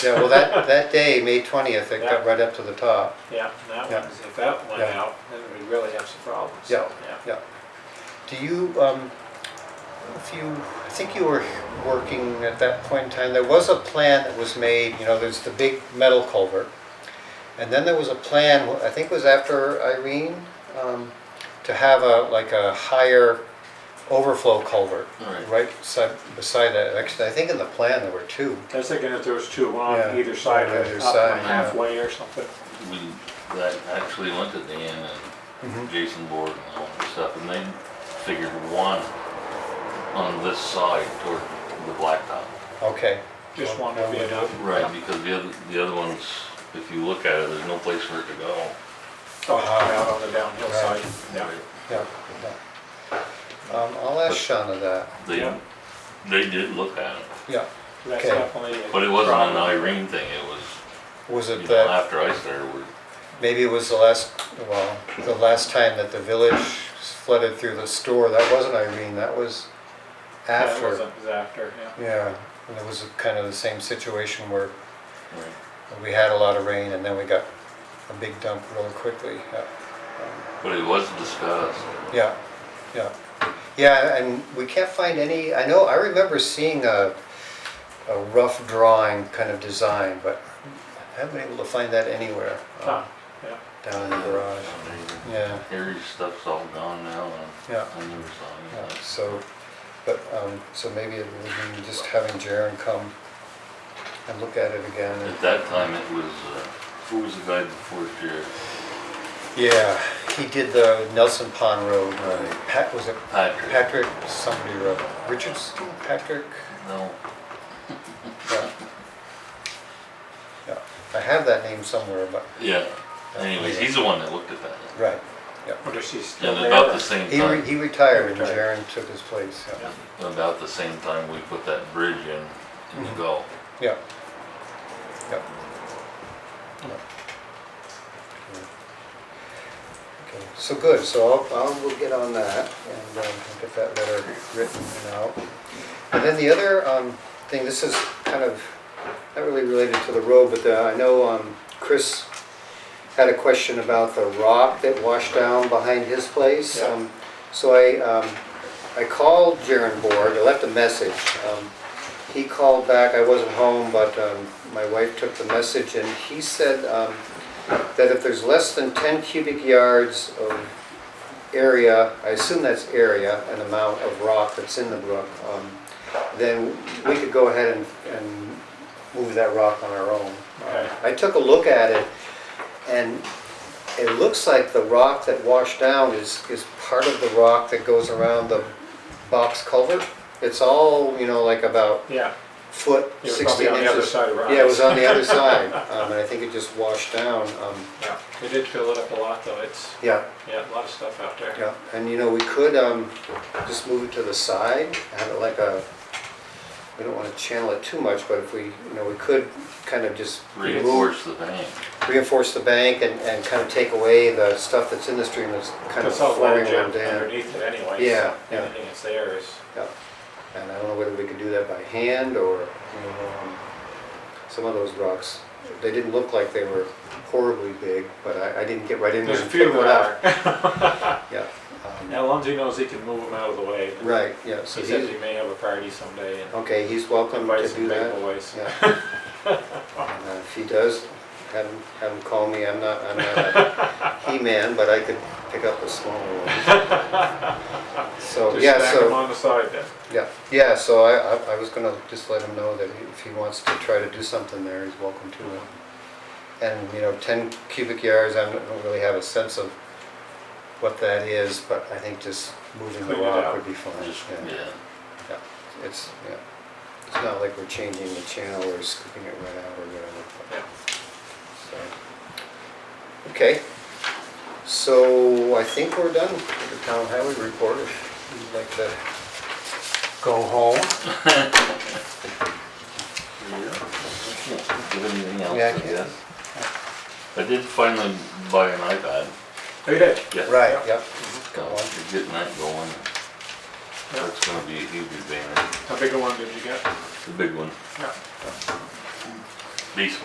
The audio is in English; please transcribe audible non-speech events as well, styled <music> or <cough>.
Yeah, well, that, that day, May twentieth, it got right up to the top. Yeah, and that Yeah. one, if that went Yeah. out, then we'd really have some problems. Yeah. Yeah. Do you, um, if you, I think you were working at that point in time, there was a plan that was made, you know, there's the big metal culvert. And then there was a plan, I think it was after Irene, um, to have a, like a higher overflow culvert. Right. side, beside that, actually, I think in the plan there were two. I was thinking if there was two, one Yeah, on either side, on either or up side, one yeah. halfway or something. We, that actually went to Dan and Jason Board and all that stuff, and they figured one on this side toward the blacktop. Okay, Just one would be enough. Right, because the other, the other ones, if you look at it, there's no place for it to go. Oh, out on the downhill side. Yeah. yeah. yeah. Um, I'll ask Shauna that, They, Yeah. they did look at it, yeah. That's Okay. definitely. a but it wasn't an problem. Irene thing, it was, Was you it know, that? after I started, we Maybe it was the last, well, the last time that the village flooded through the store, that wasn't Irene, that was Yeah, it after. wasn't- It was after, yeah. Yeah, and it was kind of the same situation where we had a lot of rain and then we got a big dump really quickly. Yeah. but it was discussed. Yeah, yeah. Yeah, and we can't find any, I know, I remember seeing a, a rough drawing kind of design, but I haven't been able to find that anywhere uh, Huh, yeah. down in the garage. Yeah. Harry's stuff's all gone now, and Yeah. I never saw Yeah, any of Uh, So, but, um, so maybe it would be just having Jaren come and look at it again. that. and- At that time, it was, uh, who was the guy before Jared? Yeah, he did the Nelson Pond Road. Right. Pat, was it Patrick. Patrick, somebody wrote, Richardson, Patrick? No, Yeah. Yeah, I have that name somewhere, but, yeah, anyways, he's the one that looked at that, right. Wonder if she's still and there. about the same He, re- time, he retired and He retired. Jaren took his place, yeah. about the same time we put that bridge in, in the Mhm. Gulf. Yeah. Yep. Okay, so good, so I'll, I'll, we'll get on that and, um, I'll get that letter written and out. And then the other, um, thing, this is kind of, not really related to the road, but uh, I know, um, Chris had a question about the rock that washed down behind his place. Yeah. Um, So I, um, I called Jaren Borg, I left a message. Um, He called back, I wasn't home, but um, my wife took the message, and he said um, that if there's less than 10 cubic yards of area, I assume that's area, an amount of rock that's in the brook, um, then we could go ahead and, and move that rock on our own. Okay. I took a look at it, and it looks like the rock that washed down is, is part of the rock that goes around the box culvert. It's all, you know, like about Yeah, foot, it was sixteen probably on the other inches. side of Ryan's. Yeah, it was on the other side, um, and I think it just washed down, um, Yeah, they did fill it up a lot though, it's, yeah, yeah, a lot of stuff out there. yeah. And, you know, we could, um, just move it to the side, have it like a, we don't wanna channel it too much, but if we, you know, we could kind of just remove Reinforce the bank, reinforce the bank and, and kind of take away the stuff that's in the stream that's kind of It's all low flowing jam around down. underneath it anyway. so Yeah, yeah. Anything that's there is, Yeah. And I don't know whether we could do that by hand or, you know, um, some of those rocks, they didn't look like they were horribly big, but I, I didn't get right in there there's a and few pick one out. that are. Yeah. um, Now Lindsay knows he can move them out of the way. Right, yeah, so He says he's, he may have a party someday and okay, he's welcome invite to some do big that. boys. Yeah. <laughs> And, uh, If he does, have him, have him call me, I'm not, I'm not a <laughs> he-man, but I could pick up a smaller one. <laughs> So, Just yeah, stack so. them on the side then. Yeah, yeah, so I, I- I was gonna just let him know that if he wants to try to do something there, he's welcome to it. And, you know, ten cubic yards, I don't don't really have a sense of what that is, but I think just moving the Clean it rock out. would be fine. just, yeah. yeah, It's, yeah, it's not like we're changing the channel or scooping it right out or whatever. but- Yeah. so. Okay, so I think we're done with the town highway report, if you'd like to go home. Give anything else, Yeah, I I can. guess. I did finally buy an iPad, Oh, you did? yeah. Right, yep. So, Got one. you're getting that going, Yeah. that's gonna be a huge advantage, How big a one did you get? the big one. Yeah. These